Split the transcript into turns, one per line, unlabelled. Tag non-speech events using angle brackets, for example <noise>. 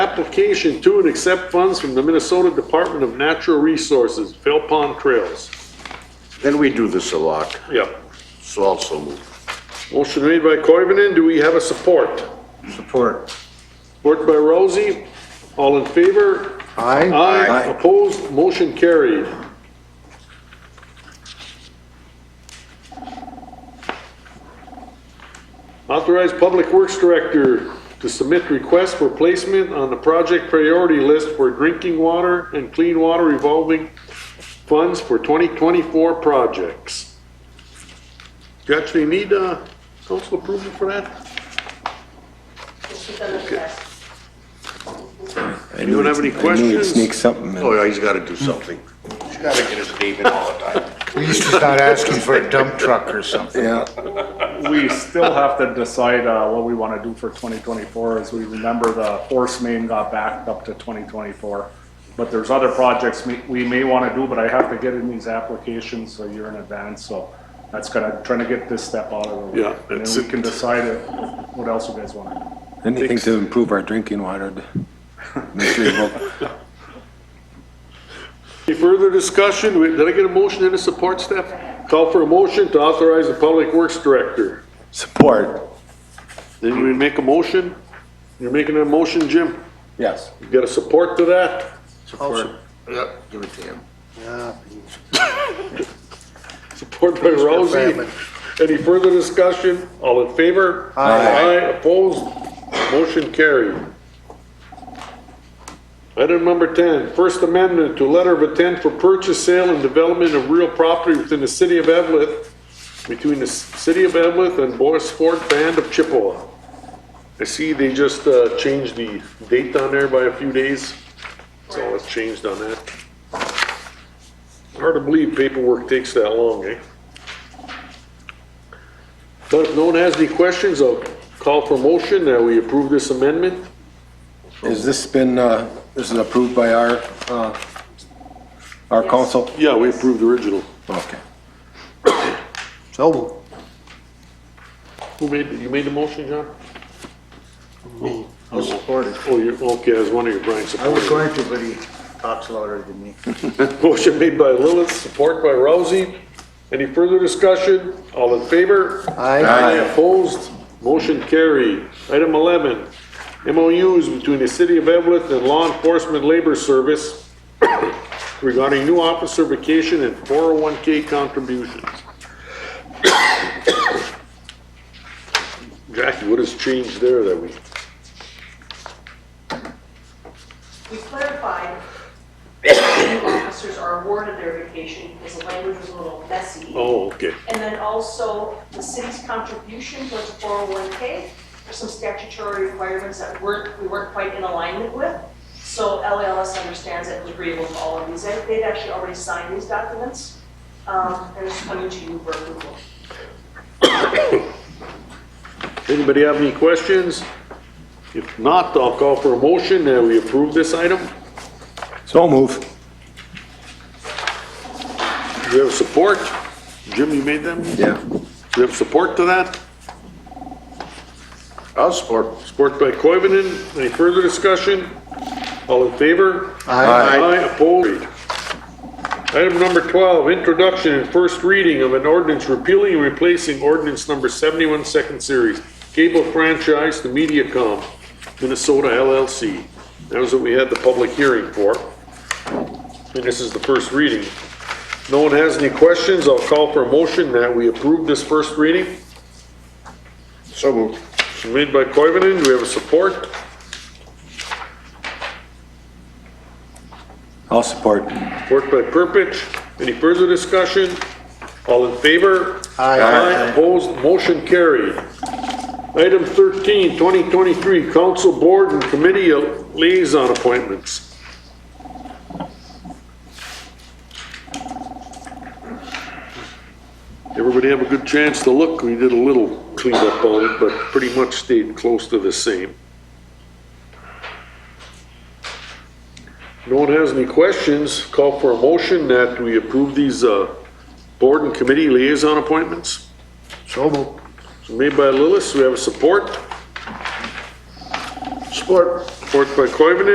Application to and accept funds from the Minnesota Department of Natural Resources, Fell Pond Trails.
Then we do this a lot,
Yep.
so also move.
Motion made by Coivinon, do we have a support?
Support.
Support by Rousey, all in favor?
Aye.
Aye, opposed, motion carried. Authorize Public Works Director to submit request for placement on the project priority list for drinking water and clean water revolving funds for 2024 projects. Do you actually need, uh, council approval for that? Anyone have any
I knew he'd
questions?
sneak something in.
Oh, yeah, he's gotta do something. He's gotta get his name in all the time.
At least he's not asking for a dump truck or something.
Yeah,
we still have to decide uh, what we want to do for 2024, as we remember the force main got backed up to 2024. But there's other projects we- we may want to do, but I have to get in these applications a year in advance, so that's kind of trying to get this step out of the way.
Yeah,
And
that's
then we
it.
can decide if- what else you guys want to do.
anything to improve our drinking water. Make sure you vote.
Any further discussion? Wait, Did I get a motion and a support, Steph? Call for a motion to authorize the Public Works Director.
<laughs> Support,
Did we make a motion? You're making a motion, Jim?
yes.
You got a support to that?
Support.
Yeah, Oh, give it to him.
Support by Rousey.
Fairman.
Any further discussion? All in favor? Aye, opposed? Motion carried. Item number 10, First Amendment to letter of intent for purchase, sale, and development of real property within the city of Evlith, between the s- city of Evlith and Boris Fort Band of Chippewa. I see they just uh, changed the date on there by a few days. That's all that's changed on that. Hard to believe paperwork takes that long, eh? But if no one has any questions, I'll call for motion that we approve this amendment.
Has this been, uh, this is approved by our, uh, our council?
Yeah, we approved the original.
Okay.
So moved.
Who made, you made the motion, John? I supported. Oh, you're, okay, I was wondering if Brian
I was
supported.
going to, but he talks louder than me.
<laughs> Motion made by Lilith, support by Rousey. Any further discussion? All in favor?
Aye.
Opposed? Motion carried. Item 11, MOUs between the City of Evlith and Law Enforcement Labor Service <coughs> regarding new officer vacation and 401K contributions. Jackie, what has changed there that we?
We clarified that new officers are awarded their vacation because the language was a little messy.
Oh, okay.
And then also the city's contribution towards oh the 401K, there's some statutory requirements that weren't, we weren't quite in alignment with. So LALS understands it was agreeable to all of these. They- They'd actually already signed these documents. Um, They're just coming to you for approval.
Anybody have any questions? If not, I'll call for a motion that we approve this item.
So move.
Do you have support? Jim, you made them? Do
Yeah.
you have support to that?
I'll support.
Support by Coivinon. Any further discussion? All in favor? Aye, opposed. Item number 12, introduction and first reading of an ordinance repealing and replacing ordinance number 71, second series, cable franchise to Mediacom, Minnesota LLC. That was what we had the public hearing for. And this is the first reading. No one has any questions, I'll call for a motion that we approve this first reading.
So moved.
Made by Coivinon, do we have a support?
I'll support.
Worked by Purpich. Any further discussion? All in favor?
Aye.
Opposed, motion carried. Item 13, 2023, council board and committee liaison appointments. Everybody have a good chance to look. We did a little cleanup on it, but pretty much stayed close to the same. No one has any questions, call for a motion that we approve these uh, board and committee liaison appointments.
So moved.
Made by Lillis, we have a support.
Support.
Support by Coivinon.